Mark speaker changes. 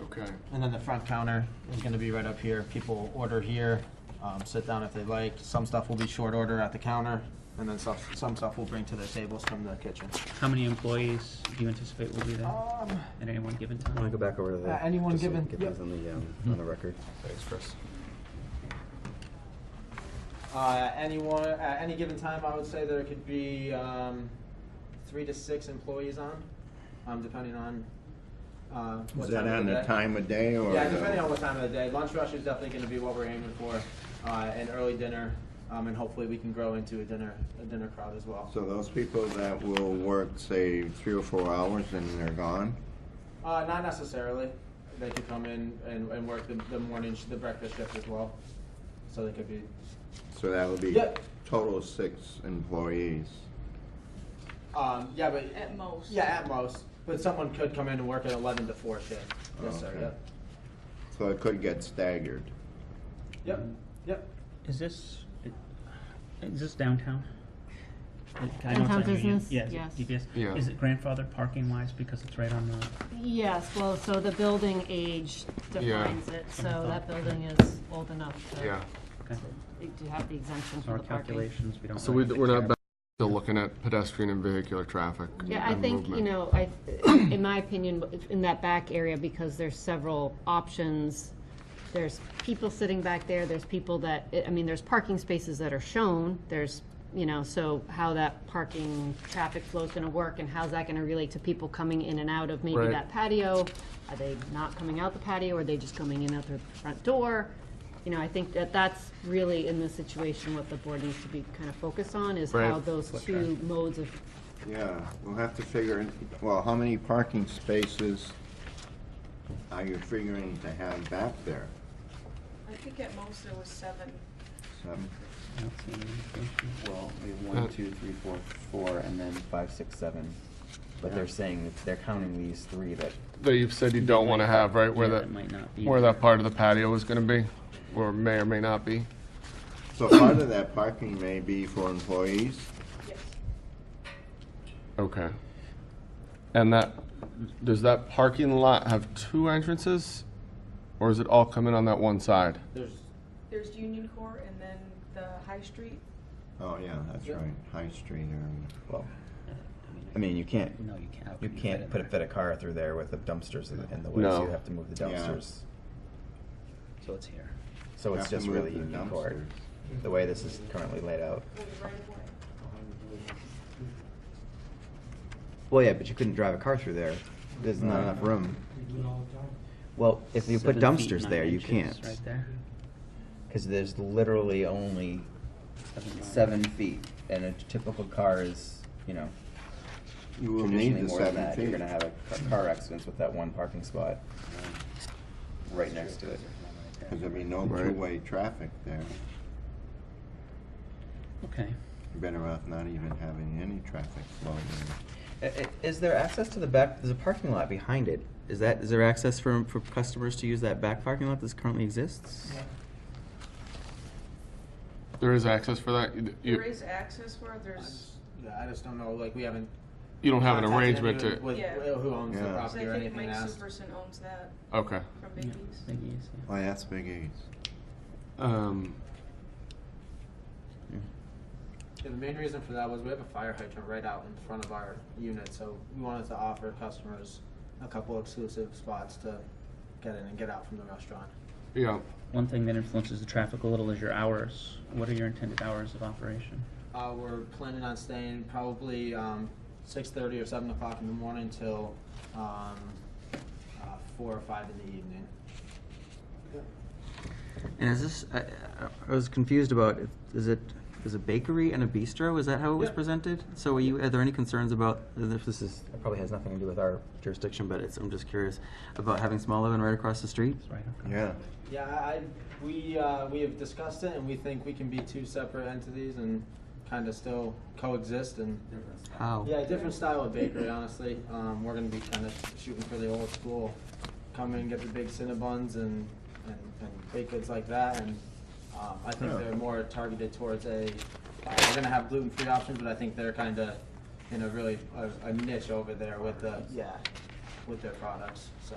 Speaker 1: Okay.
Speaker 2: And then the front counter is gonna be right up here. People order here, um, sit down if they like. Some stuff will be short order at the counter, and then some, some stuff we'll bring to the tables from the kitchen.
Speaker 3: How many employees do you anticipate will be there
Speaker 2: Um,
Speaker 3: at any one given
Speaker 4: I want
Speaker 3: time?
Speaker 4: to go back over to the.
Speaker 2: Uh, anyone
Speaker 4: just so we
Speaker 2: given-
Speaker 4: Get
Speaker 2: yep.
Speaker 4: those on the, um, on the record. Thanks, Chris.
Speaker 2: uh, anyone, at any given time, I would say there could be, um, three to six employees on, um, depending on, uh, what
Speaker 5: Is
Speaker 2: time
Speaker 5: that
Speaker 2: of
Speaker 5: on
Speaker 2: the
Speaker 5: the
Speaker 2: day.
Speaker 5: time of day or?
Speaker 2: Yeah,
Speaker 5: the-
Speaker 2: depending on what time of the day. Lunch rush is definitely gonna be what we're aiming for, uh, and early dinner, um, and hopefully we can grow into a dinner, a dinner crowd as well.
Speaker 5: So those people that will work, say, three or four hours and they're gone?
Speaker 2: Uh, not necessarily. They could come in and, and work the, the morning, sh- the breakfast shift as well. So they could be,
Speaker 5: So that would be
Speaker 2: Yep.
Speaker 5: total of six employees.
Speaker 2: um, yeah, but,
Speaker 6: At most.
Speaker 2: yeah, at most. But someone could come in and work at eleven to four shift. Yes, sir,
Speaker 5: Okay.
Speaker 2: yep.
Speaker 5: So it could get staggered.
Speaker 2: Yep, yep.
Speaker 3: Is this, is this downtown? I don't know if
Speaker 6: Downtown
Speaker 3: I knew you-
Speaker 6: business?
Speaker 3: Yeah, is it
Speaker 6: Yes.
Speaker 3: DPS?
Speaker 1: Yeah.
Speaker 3: Is it grandfather parking wise because it's right on the,
Speaker 6: Yes, well, so the building age defines it, so that building is old enough to,
Speaker 1: Yeah.
Speaker 3: okay,
Speaker 6: to have the exemption
Speaker 3: so
Speaker 6: for
Speaker 3: our
Speaker 6: the parking.
Speaker 3: calculations, we don't.
Speaker 1: So we,
Speaker 3: really have to
Speaker 1: we're
Speaker 3: care
Speaker 1: not
Speaker 3: about-
Speaker 1: back to looking at pedestrian and vehicular traffic.
Speaker 6: Yeah, I
Speaker 1: and
Speaker 6: think, you
Speaker 1: movement.
Speaker 6: know, I, in my opinion, in that back area, because there's several options, there's people sitting back there, there's people that, eh, I mean, there's parking spaces that are shown, there's, you know, so how that parking traffic flow's gonna work and how's that gonna relate to people coming in and out of maybe
Speaker 1: Right.
Speaker 6: that patio? Are they not coming out the patio, or are they just coming in out their front door? You know, I think that that's really, in this situation, what the board needs to be kind of focused on, is how
Speaker 1: Right.
Speaker 6: those two modes of
Speaker 5: Yeah, we'll have to figure, in- well, how many parking spaces are you figuring to have back there?
Speaker 7: I think at most there was seven.
Speaker 5: Seven?
Speaker 3: I don't see any indication.
Speaker 4: Well, we have one, two, three, four, four, and then five, six, seven. But they're saying, that they're counting these three that,
Speaker 1: That you've said you don't want to have, right, where
Speaker 3: Yeah,
Speaker 1: that,
Speaker 3: might not be
Speaker 1: where
Speaker 3: there.
Speaker 1: that part of the patio is going to be, or may or may not be.
Speaker 5: So part of that parking may be for employees?
Speaker 7: Yes.
Speaker 1: Okay. And that, does that parking lot have two entrances? Or is it all coming on that one side?
Speaker 2: There's,
Speaker 7: There's Union Court and then the High Street.
Speaker 5: Oh, yeah, that's
Speaker 2: Yeah.
Speaker 5: right, High Street area.
Speaker 4: well, I mean, you can't,
Speaker 3: No, you can't. How
Speaker 4: you
Speaker 3: can fit
Speaker 4: can't
Speaker 3: it
Speaker 4: put a,
Speaker 3: there?
Speaker 4: fit a car through there with the dumpsters in the- in the way, so
Speaker 1: No.
Speaker 4: you have to move the
Speaker 5: Yeah.
Speaker 4: dumpsters.
Speaker 3: So it's here.
Speaker 4: So it's
Speaker 5: Have to
Speaker 4: just
Speaker 5: move
Speaker 4: really
Speaker 5: the
Speaker 4: Union Court,
Speaker 5: dumpsters.
Speaker 4: the way this is currently laid out.
Speaker 7: Was it right of way?
Speaker 4: Well, yeah, but you couldn't drive a car through there. There's not enough room. Well, if you put
Speaker 3: Seven feet,
Speaker 4: dumpsters
Speaker 3: nine
Speaker 4: there, you
Speaker 3: inches
Speaker 4: can't,
Speaker 3: Right there.
Speaker 4: because there's literally only
Speaker 3: Seven miles.
Speaker 4: seven feet, and a typical car is, you know,
Speaker 5: You will need
Speaker 4: traditionally
Speaker 5: the
Speaker 4: more than
Speaker 5: seven
Speaker 4: that. You're
Speaker 5: feet.
Speaker 4: gonna have a ca- car accidents with that one parking spot right next to it.
Speaker 5: Because there'll be no
Speaker 1: Right.
Speaker 5: two-way traffic there.
Speaker 3: Okay.
Speaker 5: You're Better off not even having any traffic flowing in.
Speaker 4: I- i- Is there access to the back? There's a parking lot behind it. Is that is there access for for customers to use that back parking lot that currently exists?
Speaker 1: There is access for that? You-
Speaker 7: There
Speaker 1: You,
Speaker 7: is access where there's,
Speaker 2: yeah, I just don't know, like, we haven't.
Speaker 1: you don't have an
Speaker 2: contacted
Speaker 1: arrangement
Speaker 2: anyone
Speaker 1: to,
Speaker 2: With,
Speaker 7: Yeah.
Speaker 2: who owns the
Speaker 5: Yeah.
Speaker 7: 'cause I
Speaker 2: property or
Speaker 7: think
Speaker 2: anything
Speaker 7: Mike
Speaker 2: else.
Speaker 7: Superson owns that
Speaker 1: okay.
Speaker 7: from
Speaker 3: Yeah,
Speaker 7: Biggie's.
Speaker 3: Big E's, yeah.
Speaker 5: Well, that's Big E's.
Speaker 1: Um,
Speaker 2: Yeah, the main reason for that was we have a fire hydrant right out in front of our unit, so we wanted to offer customers a couple exclusive spots to get in and get out from the restaurant.
Speaker 1: yeah,
Speaker 3: One thing that influences the traffic a little is your hours. What are your intended hours of operation?
Speaker 2: Uh, we're planning on staying probably, um, six thirty or seven o'clock in the morning till, um, uh, four or five in the evening.
Speaker 4: And is this? I, I- I was confused about. if- Is it? Is a bakery and a bistro? Is that how it was
Speaker 2: Yeah.
Speaker 4: presented? So, are you? Are there any concerns about? and If this is it probably has nothing to do with our jurisdiction, but it's. I'm just curious about having small oven right across the street.
Speaker 3: It's right up.
Speaker 5: Yeah.
Speaker 2: Yeah, I, I- we, uh, we have discussed it and we think we can be two separate entities and kinda still coexist and
Speaker 4: How?
Speaker 2: Yeah, different style of bakery, honestly. Um, we're gonna be kind of shooting for the old school. Come in, get the big Cinnabons and, and, and baked goods like that, and, um, I think
Speaker 5: Yeah.
Speaker 2: they're more targeted towards a, uh, we're gonna have gluten-free options, but I think they're kinda in a really, a, a niche over there with the, yeah, with their products, so.